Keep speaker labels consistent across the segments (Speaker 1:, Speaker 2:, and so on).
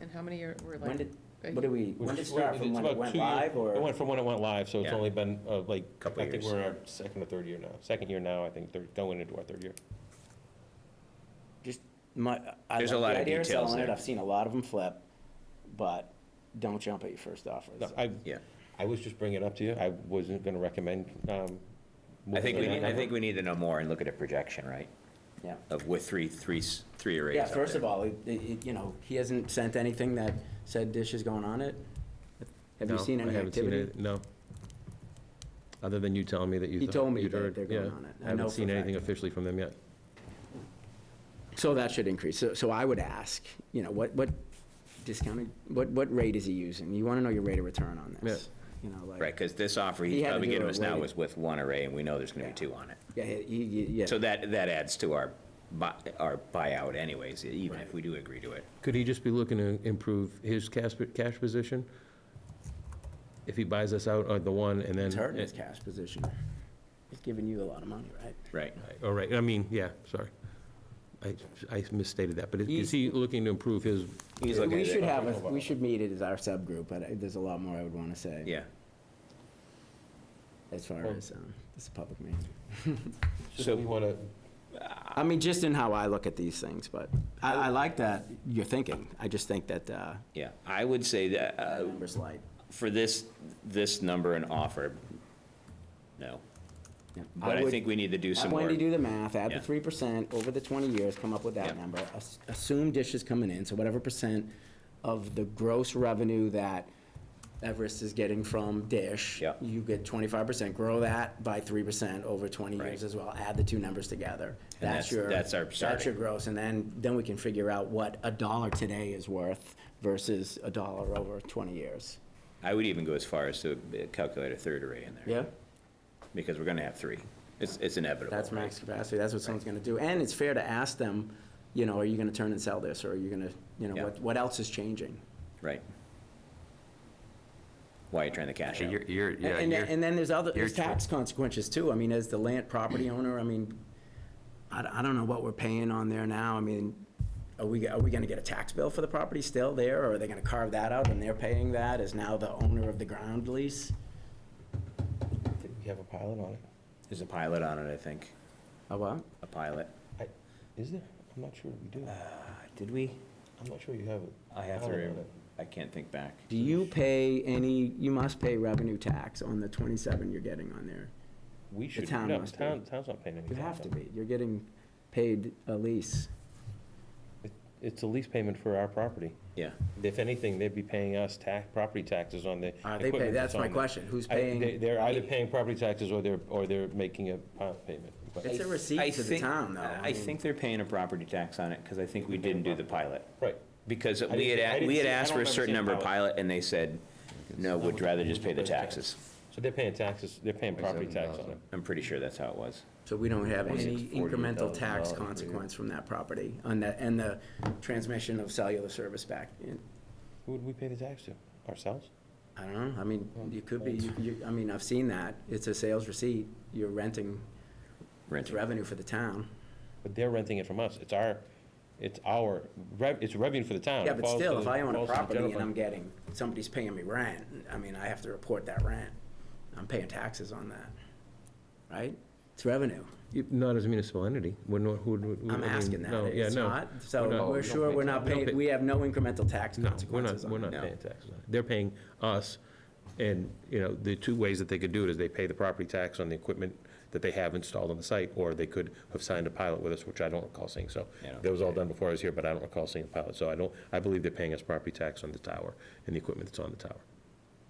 Speaker 1: And how many are, were
Speaker 2: When
Speaker 1: like?
Speaker 2: did,
Speaker 1: a-
Speaker 2: what did we, when did it
Speaker 3: It's-
Speaker 2: start, from
Speaker 3: it's
Speaker 2: when it
Speaker 3: about
Speaker 2: went
Speaker 3: two year-
Speaker 2: live,
Speaker 3: It
Speaker 2: or?
Speaker 3: went from when it went live, so it's
Speaker 2: Yeah.
Speaker 3: only been uh, like,
Speaker 2: Couple
Speaker 3: I think
Speaker 2: years.
Speaker 3: we're in our second or third year now, second year now, I think, third- going into our third year.
Speaker 2: My, I like
Speaker 4: There's a
Speaker 2: the
Speaker 4: lot of
Speaker 2: idea of
Speaker 4: details
Speaker 2: selling it,
Speaker 4: there.
Speaker 2: I've seen a lot of them flip, but don't jump at your first offer.
Speaker 3: No, I,
Speaker 4: Yeah.
Speaker 3: I was just bringing it up to you, I wasn't gonna recommend. um,
Speaker 4: I think we,
Speaker 3: moving
Speaker 4: need-
Speaker 3: that
Speaker 4: I think
Speaker 3: number.
Speaker 4: we need to know more and look at a projection, right?
Speaker 2: Yeah.
Speaker 4: Of with three, three, s- three arrays
Speaker 2: Yeah,
Speaker 4: up
Speaker 2: first
Speaker 4: there.
Speaker 2: of all, it, it, you know, he hasn't sent anything that said dish is going on it? Have you
Speaker 3: No,
Speaker 2: seen
Speaker 3: I
Speaker 2: any
Speaker 3: haven't seen
Speaker 2: activity?
Speaker 3: it, No. Other than you telling me that you.
Speaker 2: He
Speaker 3: thought
Speaker 2: told me
Speaker 3: you'd
Speaker 2: that
Speaker 3: heard,
Speaker 2: they're going
Speaker 3: yeah.
Speaker 2: on it. I
Speaker 3: I
Speaker 2: know
Speaker 3: haven't
Speaker 2: for
Speaker 3: seen
Speaker 2: a
Speaker 3: anything
Speaker 2: fact.
Speaker 3: officially from them yet.
Speaker 2: So that should increase. So, so I would ask, you know, what, what discounted, what, what rate is he using? You want to know your rate of return on this. You know, like.
Speaker 4: Right, because this offer
Speaker 2: He
Speaker 4: he's
Speaker 2: had to
Speaker 4: probably
Speaker 2: do
Speaker 4: giving
Speaker 2: it
Speaker 4: us now
Speaker 2: way-
Speaker 4: is with one array, and we know there's gonna be
Speaker 2: Yeah.
Speaker 4: two on it.
Speaker 2: Yeah, he- he- yeah.
Speaker 4: So that, that adds to our, bu- our buyout anyways, e, even if we do agree to it.
Speaker 3: Could he just be looking to improve his cash, cash position? If he buys us out, or the one, and then.
Speaker 2: It's hurting his cash position. He's giving you a lot of money, right?
Speaker 4: Right.
Speaker 3: All right, I mean, yeah, sorry. I, I misstated that, but
Speaker 2: He's-
Speaker 3: is he looking to improve his,
Speaker 4: He's looking
Speaker 2: We
Speaker 4: at
Speaker 2: should
Speaker 4: it.
Speaker 2: have, a- we should meet it as our subgroup, but I- there's a lot more I would want to say.
Speaker 4: Yeah.
Speaker 2: As far as, um, this is a public meeting.
Speaker 3: so we want to,
Speaker 2: I mean, just in how I look at these things, but I, I like that you're thinking. I just think that, uh,
Speaker 4: Yeah, I would say that, uh,
Speaker 2: numbers light.
Speaker 4: for this, this number and offer, no.
Speaker 2: Yeah.
Speaker 4: But I
Speaker 2: would-
Speaker 4: think we need to do some
Speaker 2: Have
Speaker 4: more.
Speaker 2: Wendy do the math, add the
Speaker 4: Yeah.
Speaker 2: three percent over the twenty years, come up with that
Speaker 4: Yeah.
Speaker 2: number. Ass- Assume Dish is coming in, so whatever percent of the gross revenue that Everest is getting from Dish.
Speaker 4: Yeah.
Speaker 2: You get twenty-five percent, grow that by three percent over twenty years
Speaker 4: Right.
Speaker 2: as well, add the two numbers together.
Speaker 4: And
Speaker 2: That's
Speaker 4: that's-
Speaker 2: your.
Speaker 4: that's our
Speaker 2: That's your
Speaker 4: starting.
Speaker 2: gross, and then, then we can figure out what a dollar today is worth versus a dollar over twenty years.
Speaker 4: I would even go as far as to calculate a third array in there.
Speaker 2: Yeah?
Speaker 4: Because we're gonna have three. It's, it's inevitable.
Speaker 2: That's
Speaker 4: right?
Speaker 2: max capacity, that's what someone's gonna do, and it's fair to ask them, you know, are you gonna turn and sell this, or are you gonna, you know,
Speaker 4: Yeah.
Speaker 2: what, what else is changing?
Speaker 4: Right. Why are you trying to cash
Speaker 5: Yeah,
Speaker 4: out?
Speaker 5: You're, you're, yeah,
Speaker 2: And,
Speaker 5: you're-
Speaker 2: and then there's other, there's
Speaker 5: you're-
Speaker 2: tax consequences too, I mean, as the land property owner, I mean, I, d- I don't know what we're paying on there now, I mean, are we, are we gonna get a tax bill for the property still there, or are they gonna carve that out and they're paying that as now the owner of the ground lease?
Speaker 3: we have a pilot on it.
Speaker 4: There's a pilot on it, I think,
Speaker 2: Oh, what?
Speaker 4: a pilot.
Speaker 3: I- Is there? I'm not sure we do.
Speaker 2: Uh,
Speaker 4: Did we?
Speaker 3: I'm not sure you have it.
Speaker 4: I have to,
Speaker 3: pilot
Speaker 4: re-
Speaker 3: on it.
Speaker 4: I can't think back.
Speaker 2: Do you pay any, you must pay revenue tax on the twenty-seven you're getting on there?
Speaker 3: We should,
Speaker 2: town
Speaker 3: no,
Speaker 2: must be.
Speaker 3: town, town's not paying any.
Speaker 2: You
Speaker 3: tax
Speaker 2: have to
Speaker 3: on
Speaker 2: be, you're getting paid a lease.
Speaker 3: it. It's a lease payment for our property.
Speaker 4: Yeah,
Speaker 3: If anything, they'd be paying us tax, property taxes on the
Speaker 2: Are
Speaker 3: equipment
Speaker 2: Uh, they paying, that's
Speaker 3: on
Speaker 2: my
Speaker 3: there.
Speaker 2: question, who's
Speaker 3: I-
Speaker 2: paying?
Speaker 3: they- They're either paying property taxes or they're, or they're making a pilot payment. but-
Speaker 2: It's a
Speaker 4: I
Speaker 2: receipt to the
Speaker 4: think-
Speaker 2: town, though.
Speaker 4: I
Speaker 2: mean,
Speaker 4: think they're paying a property tax on it, because I think we didn't do the pilot.
Speaker 3: Right.
Speaker 4: Because
Speaker 3: didn't
Speaker 4: we had,
Speaker 3: see- I
Speaker 4: a-
Speaker 3: didn't
Speaker 4: we had
Speaker 3: see- I
Speaker 4: asked
Speaker 3: don't
Speaker 4: for a
Speaker 3: remember
Speaker 4: certain
Speaker 3: seeing
Speaker 4: number of
Speaker 3: pilot.
Speaker 4: pilot, and they said, no, we'd rather just pay the taxes.
Speaker 3: So they're paying taxes, they're paying property tax on it.
Speaker 4: I'm pretty sure that's how it was.
Speaker 2: So we don't have
Speaker 5: Was it
Speaker 2: any incremental tax
Speaker 5: $48,000 per year?
Speaker 2: consequence from that property on that, and the transmission of cellular service back. in.
Speaker 3: Who would we pay the tax to? Ourselves?
Speaker 2: I don't know, I mean, you could be, you- you, I mean, I've seen that, it's a sales receipt, you're renting, it's
Speaker 4: Renting.
Speaker 2: revenue for the town.
Speaker 3: But they're renting it from us. It's our, it's our, rev- it's revenue for the town.
Speaker 2: Yeah,
Speaker 3: Oh, It
Speaker 2: but
Speaker 3: falls to
Speaker 2: still,
Speaker 3: the-
Speaker 2: if I own a
Speaker 3: falls to the
Speaker 2: property
Speaker 3: general
Speaker 2: and
Speaker 3: fund.
Speaker 2: I'm getting, somebody's paying me rent, I mean, I have to report that rent. I'm paying taxes on that, right? It's revenue.
Speaker 3: You- Not as a municipal entity, we're not, who would. who- I
Speaker 2: I'm
Speaker 3: mean,
Speaker 2: asking that.
Speaker 3: no, yeah,
Speaker 2: It's
Speaker 3: no.
Speaker 2: not,
Speaker 3: We're
Speaker 2: so
Speaker 3: not-
Speaker 2: we're sure we're not
Speaker 3: we don't pay-
Speaker 2: paying, we have no incremental tax
Speaker 3: No, we're not,
Speaker 2: consequences
Speaker 3: we're
Speaker 2: on
Speaker 3: not
Speaker 2: it.
Speaker 4: no.
Speaker 3: paying taxes on it. They're paying us, and, you know, the two ways that they could do it is they pay the property tax on the equipment that they have installed on the site, or they could have signed a pilot with us, which I don't recall seeing, so.
Speaker 4: Yeah, I don't
Speaker 3: That was all done before I was here, but I don't recall seeing a pilot, so I don't, I believe they're paying us property tax on the tower and the equipment that's on the tower,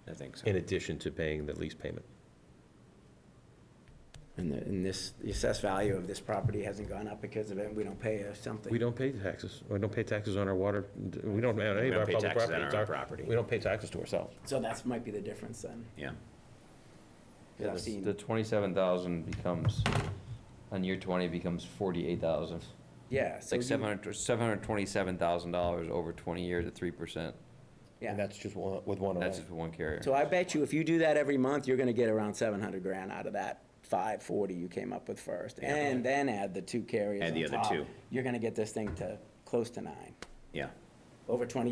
Speaker 4: I think so.
Speaker 3: in addition to paying the lease payment.
Speaker 2: And, the- and this, the assessed value of this property hasn't gone up because of it, we don't pay or something.
Speaker 3: We don't pay taxes, we don't pay taxes on our water, we don't, on any
Speaker 4: We
Speaker 3: of
Speaker 4: don't
Speaker 3: our
Speaker 4: pay
Speaker 3: public
Speaker 4: taxes on
Speaker 3: property. It's
Speaker 4: our own property.
Speaker 3: We don't pay taxes to ourselves.
Speaker 2: So that's, might be the difference then,
Speaker 4: Yeah,
Speaker 5: yeah,
Speaker 2: because I've
Speaker 5: the-
Speaker 2: seen.
Speaker 5: the twenty-seven thousand becomes, on year twenty becomes forty-eight thousand.
Speaker 2: Yeah,
Speaker 5: It's
Speaker 2: so
Speaker 5: like
Speaker 2: you-
Speaker 5: seven hundred, seven hundred twenty-seven thousand dollars over twenty years at three percent.
Speaker 3: And
Speaker 2: yeah.
Speaker 3: that's just one- with one array.
Speaker 5: That's just for one carrier.
Speaker 2: So I bet you if you do that every month, you're gonna get around seven hundred grand out of that five forty you came up with first.
Speaker 4: Yeah.
Speaker 2: And then add the two carriers
Speaker 4: Add the
Speaker 2: on
Speaker 4: other
Speaker 2: top,
Speaker 4: two.
Speaker 2: You're gonna get this thing to close to nine,
Speaker 4: yeah.
Speaker 2: over twenty